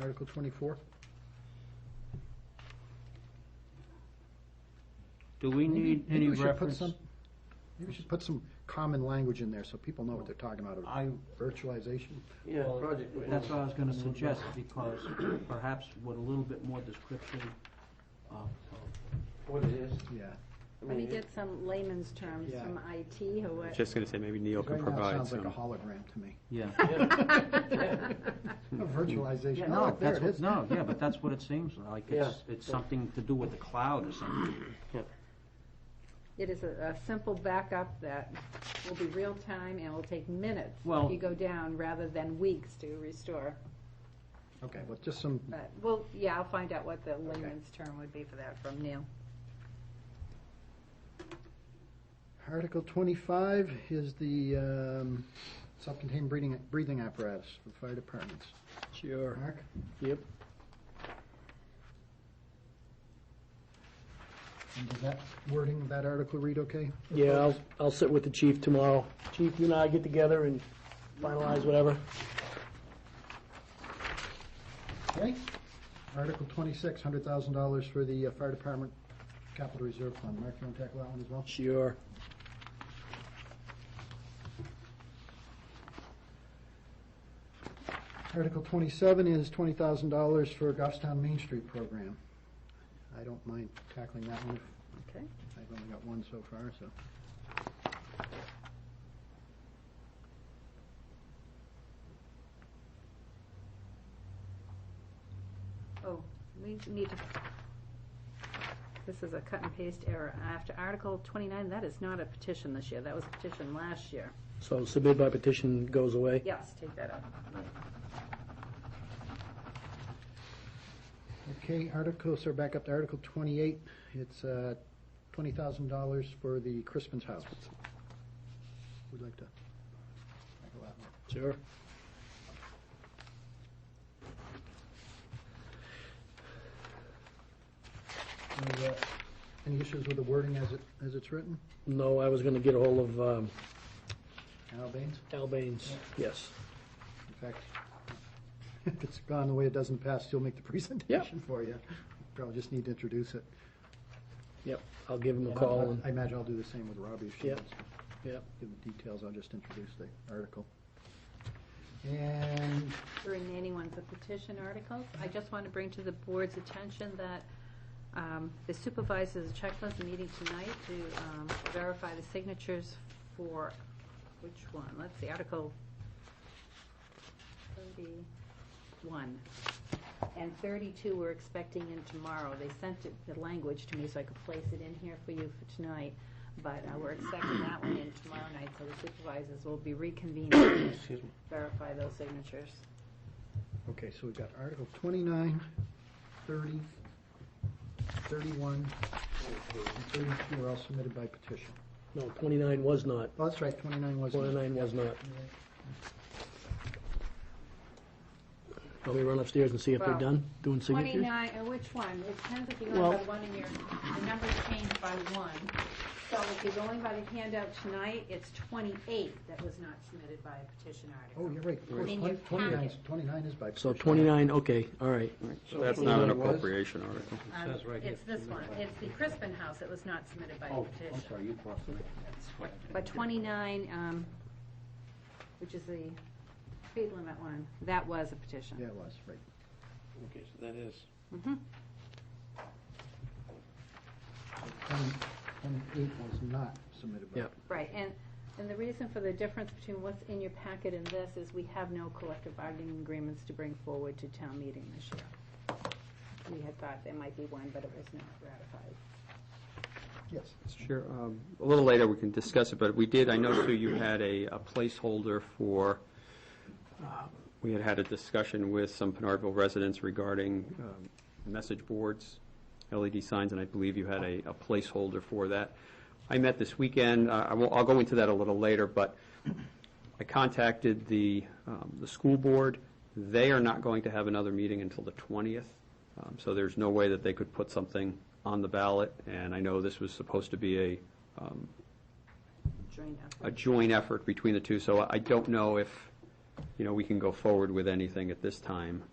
Article twenty-four? Do we need any Maybe we should put reference? some. Maybe we should put some common language in there so people know what they're talking about, I, virtualization. Yeah, well, project. that's what I was gonna suggest, because perhaps with a little bit more description uh, of What it is. Yeah. Let me get some layman's terms Yeah. from IT or what. Just going to say, maybe Neil can Right now, it provide sounds like a some. hologram to me. Yeah. A virtualization. Oh, Hmm. No, look, there that's it what, is. no, yeah, but that's what it seems like. It's, it's something to do with the cloud or something. It is a, a simple backup that will be real time and will take minutes Well- if you go down rather than weeks to restore. Okay, well, just some, But, well, yeah, I'll find out what the layman's term would be for that from Neil. Article twenty-five is the, um, self-contained breathing, breathing apparatus for fire departments. Sure. Mark? Yep. And does that wording, of that article read okay? Yeah, I'll, I'll sit with the chief tomorrow. Chief, you and I get together and finalize whatever. Okay. Article twenty-six, hundred thousand dollars for the uh, fire department capital reserve fund. Mark, you want to tackle that one as well? Sure. Article twenty-seven is twenty thousand dollars for Goffstown Main Street program. I don't mind tackling that one. Okay. I've only got one so far, so. Oh, we need to, this is a cut and paste error. After Article twenty-nine, that is not a petition this year. That was a petition last year. So submit by petition goes away. Yes, take that out. Okay, article, so back up to Article twenty-eight. It's uh, twenty thousand dollars for the Crispin's House. We'd like to tackle that one. Sure. Any, uh, Any issues with the wording as it, as it's written? No, I was gonna get ahold of, um, Al Baines? Al Baines, yes. In fact, if it's gone the way it doesn't pass, he'll make the presentation for you. Probably just need to introduce it. Yep, I'll give him a call and, I imagine I'll do the same with Robbie if she Yep. wants to. Yep. Give the details, I'll just introduce the article. And The remaining ones are petition articles. I just want to bring to the board's attention that um, the supervisors of checklist is meeting tonight to um, verify the signatures for, which one? Let's see, Article 31. And 32 we're expecting in tomorrow. They sent it- the language to me so I could place it in here for you for tonight, but uh, we're expecting that one in tomorrow night, so the supervisors will be reconvening to verify those signatures. Okay, so we've got Article 29, 30, 31, and 32 are all submitted by petition. no, twenty-nine was not. Oh, that's right, 29 was. Twenty-nine was not. Let me run upstairs and see if they're Well, done doing signatures. 29, uh, which one? It depends if you're Well- going by one in your, the numbers change by one. So if you're going by the handout tonight, it's 28 that was not submitted by a petition Oh, article. you're right, of course, In your 29 is- 29 is by So petition. twenty-nine, okay, all right. That's not an appropriation article. Um, says right It's here, this one. It's the Crispin House that was not submitted by a Oh, petition. I'm sorry, you crossed me. But 29, um, which is the speed limit one, that was a petition. Yeah, it was, right. Okay, so that is. Mhm. 20 28 was not submitted by. Yep. Right, and, and the reason for the difference between what's in your packet and this is we have no collective bargaining agreements to bring forward to town meeting this year. We had thought there might be one, but it was not ratified. Yes. Sure. um, A little later, we can discuss it, but we did, I know, Sue, you had a a placeholder for, uh, we had had a discussion with some Pinardville residents regarding um, message boards, LED signs, and I believe you had a a placeholder for that. I met this weekend, uh, I I will, I'll go into that a little later, but I contacted the, um, the school board. They are not going to have another meeting until the 20th, um, so there's no way that they could put something on the ballot. And I know this was supposed to be a, um, Joint a effort. joint effort between the two, so I don't know if, you know, we can go forward with anything at this time.